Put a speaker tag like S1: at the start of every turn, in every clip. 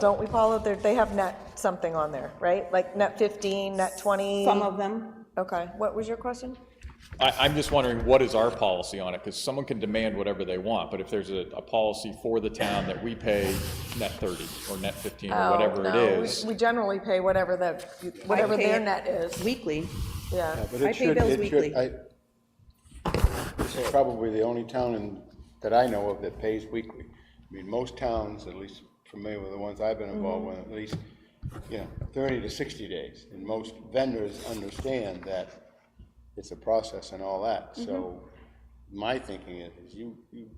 S1: Don't we, Paula, They're- they have net something on there, right? Like net 15, net 20?
S2: Some of them,
S1: Okay, what was your question?
S3: I, I'm just wondering, what is our policy on it? Because someone can demand whatever they want, but if there's a, a policy for the town that we pay net 30 or net 15 or whatever it
S1: Oh, No, Uh, we-
S3: is,
S1: We generally pay whatever the, whatever
S2: pay
S1: their
S2: it.
S1: net is,
S2: weekly.
S1: yeah.
S4: But
S2: I
S4: it
S2: pay
S4: should,
S2: bills
S4: it
S2: weekly.
S4: should, I, this is probably the only town in, that I know of that pays weekly. I mean, most towns, at least familiar with the ones I've been involved with,
S2: Mm-hmm.
S4: at least, you know, thirty to sixty days. And most vendors understand that it's a process and all that.
S2: Mm-hmm.
S4: So my thinking is, is you, you,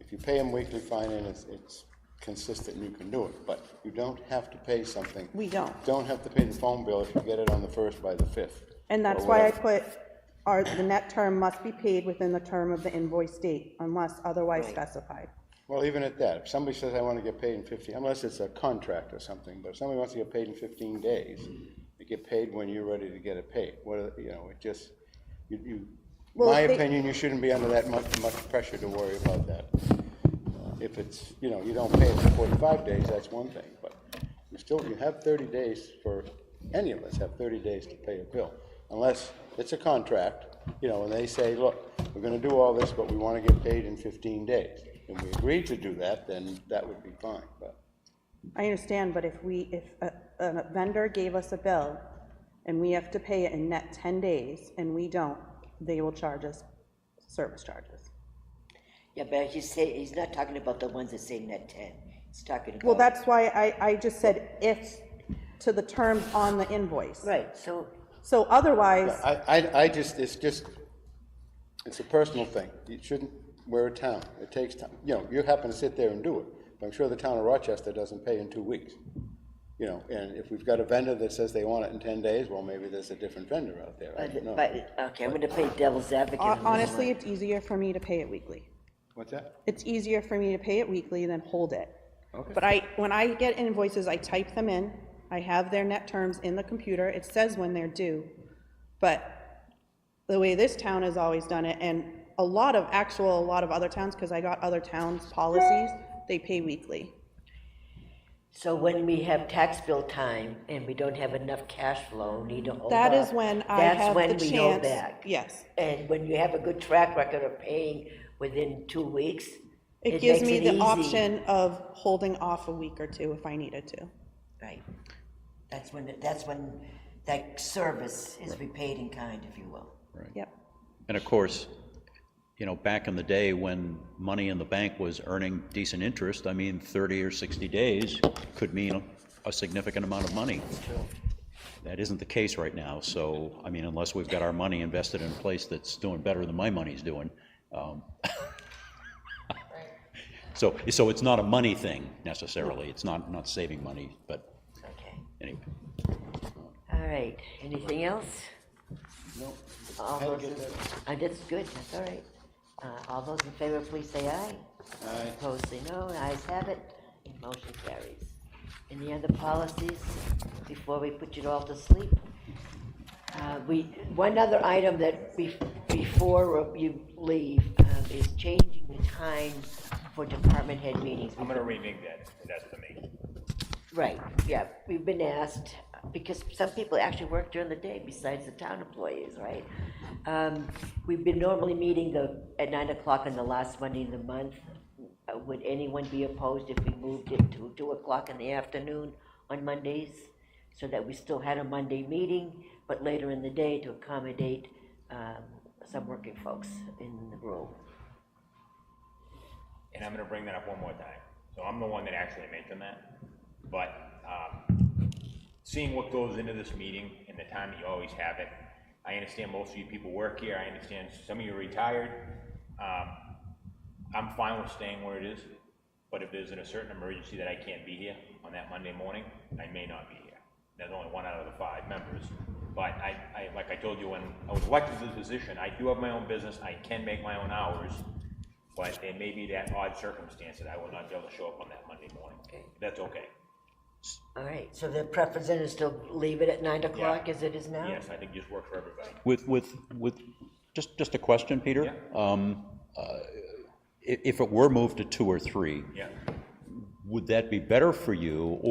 S4: if you pay them weekly, fine, and it's, it's consistent and you can do it. But you don't have to pay something.
S2: We don't.
S4: Don't have to pay the phone bill if you get it on the first by the fifth.
S2: And that's
S4: or
S2: why I
S4: whatever.
S2: put, our, the net term must be paid within the term of the invoice date unless otherwise specified.
S4: Well, even at that, if somebody says, I want to get paid in 15, unless it's a contract or something, but if somebody wants to get paid in 15 days, they get paid when you're ready to get it paid. What, are- you know, it just, you, you,
S2: Well,
S4: my
S2: if they-
S4: opinion, you shouldn't be under that much, much pressure to worry about that. Uh, If it's, you know, you don't pay it for 45 days, that's one thing, but you still, you have 30 days for, any of us have 30 days to pay a bill, unless it's a contract, you know, and they say, look, we're gonna do all this, but we wanna get paid in 15 days. And we agree to do that, then that would be fine, but
S2: I understand, but if we, if a, a vendor gave us a bill and we have to pay it in net ten days and we don't, they will charge us service charges.
S5: Yeah, but he's saying, he's not talking about the ones that say net ten. He's talking about.
S2: Well, that's why I, I just said if to the terms on the invoice.
S5: Right, so,
S2: So otherwise,
S4: I, I, I just, it's just, it's a personal thing. You shouldn't, we're a town, it takes time, you know, you happen to sit there and do it, but I'm sure the town of Rochester doesn't pay in two weeks. You know, and if we've got a vendor that says they want it in ten days, well, maybe there's a different vendor out there, I don't know.
S5: but, okay, I'm gonna play devil's advocate. on
S2: hon-
S5: this one.
S2: honestly, it's easier for me to pay it weekly.
S4: What's that?
S2: it's easier for me to pay it weekly than hold it. But I, when I get invoices, I type them in, I have their net terms in the computer, it says when they're due. But the way this town has always done it, and a lot of, actual, a lot of other towns, because I got other towns' policies, they pay weekly.
S5: So when we have tax bill time and we don't have enough cash flow, need to hold
S2: That is
S5: off,
S2: when I
S5: Oh, that's
S2: have
S5: when
S2: the
S5: we hold
S2: chance.
S5: back.
S2: Yes.
S5: And when you have a good track record of paying within two weeks.
S2: It gives
S5: makes
S2: me
S5: it
S2: the
S5: easy.
S2: option of holding off a week or two if I needed to.
S5: Right. That's when, it- that's when that service is repaid in kind, if you will.
S2: Yep.
S6: And of course, you know, back in the day when money in the bank was earning decent interest, I mean, 30 or 60 days could mean a significant amount of money. That isn't the case right now, so, I mean, unless we've got our money invested in a place that's doing better than my money's doing. um, So, so it's not a money thing necessarily, it's not, not saving money, but
S5: Okay.
S6: anyway.
S5: All right. Anything else? No. All those, in- uh, that's good, that's all right. Uh, all those in favor, please say aye. Aye. Opposed, say no. Ayes have it. And motion carries. Any other policies before we put you all to sleep? Uh, we, one other item that be, before you leave, um, is changing the time for department head meetings.
S7: I'm gonna renege that, if that's the me.
S5: Right, yeah, we've been asked, because some people actually work during the day besides the town employees, right? Um, We've been normally meeting the, at nine o'clock on the last Monday of the month. Uh, Would anyone be opposed if we moved it to two o'clock in the afternoon on Mondays? So that we still had a Monday meeting, but later in the day to accommodate um, some working folks in the room.
S7: And I'm gonna bring that up one more time. So I'm the one that actually mentioned that, but, um, seeing what goes into this meeting and the time that you always have it, I understand most of you people work here, I understand some of you are retired. Um, I'm fine with staying where it is, but if there's in a certain emergency that I can't be here on that Monday morning, I may not be here. There's only one out of the five members, but I, I, like I told you, when I was elected to the position, I do have my own business, I can make my own hours, but it may be that odd circumstance that I will not be able to show up on that Monday morning. That's okay.
S5: All right, so the preference then is to leave it at nine o'clock as it is now?
S7: Yes, I think just works for everybody.
S6: With, with, with, just, just a question, Peter? Um, uh, i- If it were moved to two or three,
S7: Yeah.
S6: would that be better for you,